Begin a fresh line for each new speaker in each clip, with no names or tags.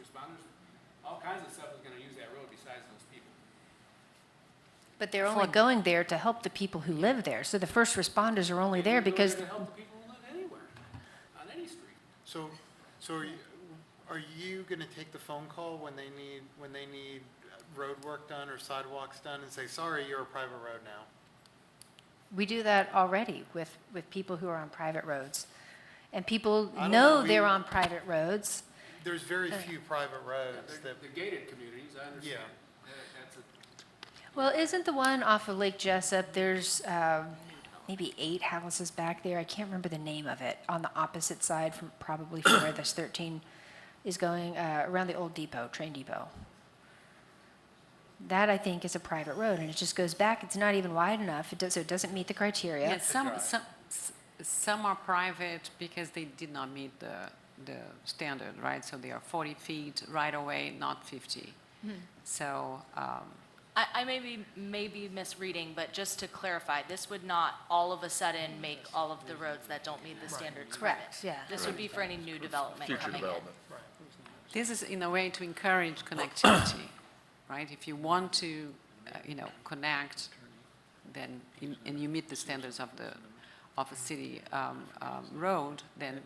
responders, all kinds of stuff is gonna use that road besides those people.
But they're only going there to help the people who live there. So the first responders are only there
They're
because,
To help the people who live anywhere, on any street.
So, so are you, are you gonna take the phone call when they need, when they need road work done or sidewalks done and say, sorry, you're a private road now?
we do that already with, with people who are on private roads. And people
I don't
know
know,
they're
we-
on private roads.
There's very few private roads
The
that,
the gated communities, I understand. That- That's a,
Well, isn't the one off of Lake Jessup, there's um, maybe eight houses back there? I can't remember the name of it, on the opposite side from, probably from where this 13 is going, uh, around the old depot, train depot. That, I think, is a private road, and it just goes back. It's not even wide enough, It does- so it doesn't meet the criteria.
Yes, some, some, s- some are private because they did not meet the, the standard, right? So they are 40 feet right away, not 50. So, um,
I, I may be, may be misreading, but just to clarify, this would not all of a sudden make all of the roads that don't meet the standards permit.
Correct, yeah.
This would be for any new development
Future
coming in.
development.
this is in a way to encourage connectivity, right? If you want to, uh, you know, connect, then, you- and you meet the standards of the, of a city um, um, road, then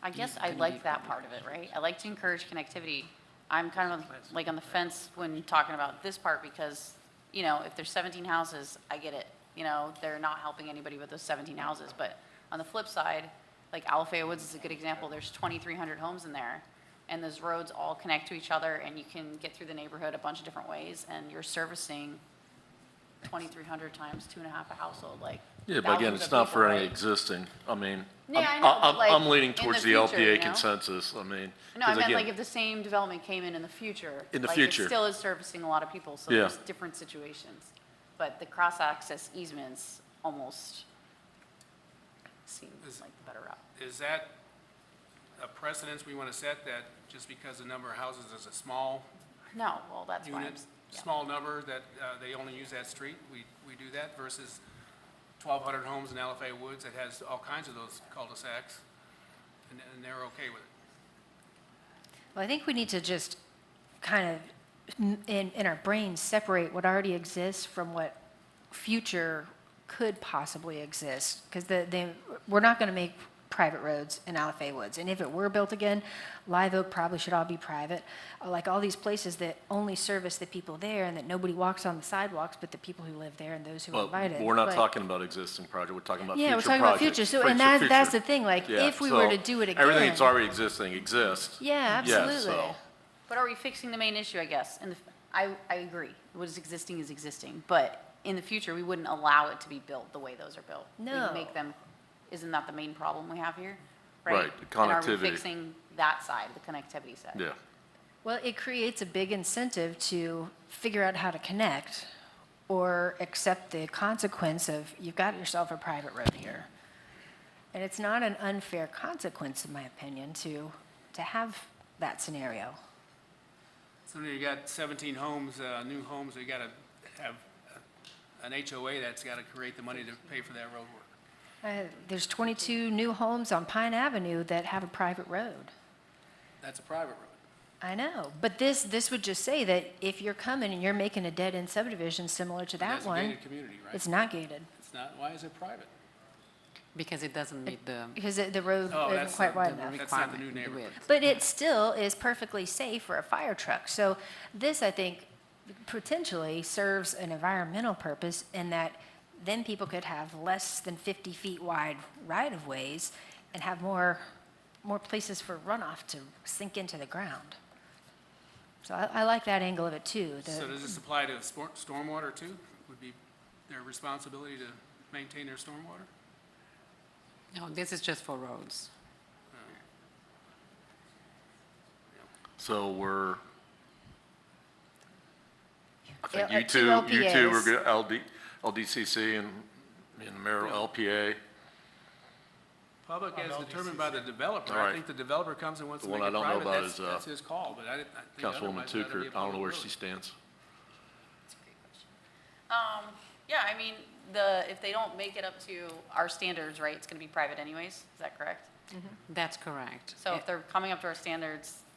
I guess I like that part of it, right? I like to encourage connectivity. I'm kind of like on the fence when talking about this part because, you know, if there's 17 houses, I get it. You know, they're not helping anybody with those 17 houses. But on the flip side, like Alafaya Woods is a good example. There's 2,300 homes in there. And those roads all connect to each other and you can get through the neighborhood a bunch of different ways. And you're servicing 2,300 times two and a half a household, like.
Yeah, but again,
thousands
it's
of
not
people,
for any
right?
existing, I mean,
Yeah, I know,
I'm,
but
I-
like,
I'm leaning
in the
towards the
future, you
LPA
know?
consensus, I mean.
No, I
'cause
meant
again,
like if the same development came in in the future.
In the
like,
future.
It still is servicing a lot of people, so
Yeah.
there's different situations. But the cross-access easements almost seem
Is-
like the better route.
is that a precedence we wanna set that just because the number of houses is a small
No, well, that's why I'm,
unit,
s- yeah.
small number, that uh, they only use that street, we, we do that versus 1,200 homes in LFA Woods that has all kinds of those cul-de-sacs, and and they're okay with it.
Well, I think we need to just kind of, m- in, in our brains, separate what already exists from what future could possibly exist. Because the, the, we're not going to make private roads in Alafay Woods. And if it were built again, Live Oak probably should all be private. Uh, Like all these places that only service the people there and that nobody walks on the sidewalks but the people who live there and those who are
Well,
invited.
we're not
But-
talking about existing project, we're talking about future
Yeah, we're
projects.
talking about future. So, and that, that's the thing, like,
Yeah,
if we were
so
to do it again.
Everything that's already existing exists.
Yeah,
Yeah,
absolutely.
so,
But are we fixing the main issue, I guess? And the f- I, I agree, what is existing is existing, but in the future, we wouldn't allow it to be built the way those are built. We
No.
Make them, isn't that the main problem we have here?
Right, the
And are we
connectivity.
fixing that side, the connectivity side?
yeah.
Well, it creates a big incentive to figure out how to connect or accept the consequence of you've got yourself a private road here. And it's not an unfair consequence, in my opinion, to, to have that scenario.
So then you got 17 homes, uh, new homes, you gotta have uh, an HOA that's gotta create the money to pay for that road work.
Uh, There's 22 new homes on Pine Avenue that have a private road.
That's a private road.
I know, but this, this would just say that if you're coming and you're making a dead-end subdivision similar to that
That's a
one,
gated community, right?
it's not gated,
It's not, why is it private?
because it doesn't meet the
because it- the road
Oh,
isn't
that's
quite
the-
wide
the
enough.
That's not the new
requirement
neighborhood.
width.
But it still is perfectly safe for a fire truck. So this, I think, potentially serves an environmental purpose in that then people could have less than 50 feet wide right-of-ways and have more, more places for runoff to sink into the ground. So I, I like that angle of it too. the-
So does this apply to spor- stormwater too? Would be their responsibility to maintain their stormwater?
No, this is just for roads.
So we're, I think
Yeah, uh,
you
two
two, you two
LPAs.
are good, LD, LDCC and, and the mayor LPA.
Public as determined by the developer.
All
I
right.
think the developer comes and wants to
The
make
one
it
I don't know
private,
about
that's,
is, uh,
that's his call, but I, I think
Councilwoman
otherwise that'd be
Tucker,
a
I don't know
public
where
road.
she stands.
Um, yeah, I mean, the, if they don't make it up to our standards, right, it's gonna be private anyways, is that correct?
That's correct.
So if they're coming up to our standards,